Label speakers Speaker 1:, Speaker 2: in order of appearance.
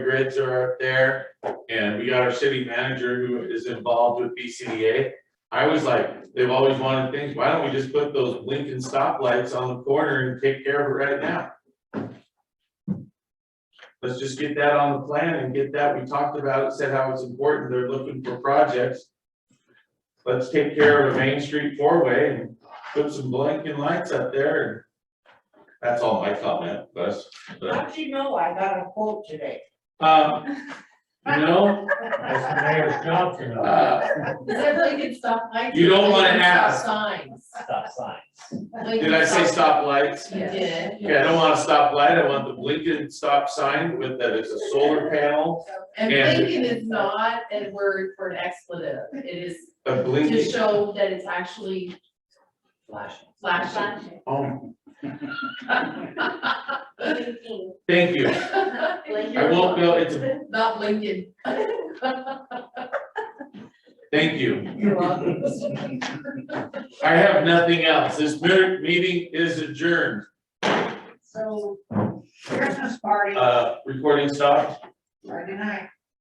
Speaker 1: grids are up there, and we got our city manager who is involved with BCDA. I was like, they've always wanted things, why don't we just put those blinking stoplights on the corner and take care of it right now? Let's just get that on the plan and get that, we talked about it, said how it's important, they're looking for projects. Let's take care of a Main Street four-way and put some blinking lights up there and that's all my comment, Gus. but,
Speaker 2: How'd you know I got a quote today?
Speaker 1: um, you know,
Speaker 3: That's Mayor Johnson,
Speaker 1: uh,
Speaker 4: Is that blinking stop lights?
Speaker 1: You don't wanna
Speaker 4: Blinking
Speaker 1: ask.
Speaker 4: Signs.
Speaker 3: stop signs.
Speaker 1: did I say stoplights?
Speaker 4: You did.
Speaker 1: Okay, I don't want a stoplight, I want the blinking stop sign with that it's a solar panel,
Speaker 4: And
Speaker 1: And-
Speaker 4: blinking is not a word for an expletive, it is
Speaker 1: a
Speaker 4: to
Speaker 1: blinking,
Speaker 4: show that it's actually flashing.
Speaker 1: oh,
Speaker 5: Blinking.
Speaker 1: thank you. I won't go, it's, a
Speaker 4: Not blinking.
Speaker 1: thank you.
Speaker 4: You're welcome.
Speaker 1: I have nothing else. This mer- meeting is adjourned.
Speaker 2: So Christmas party
Speaker 1: Uh, recording stopped.
Speaker 2: Friday night.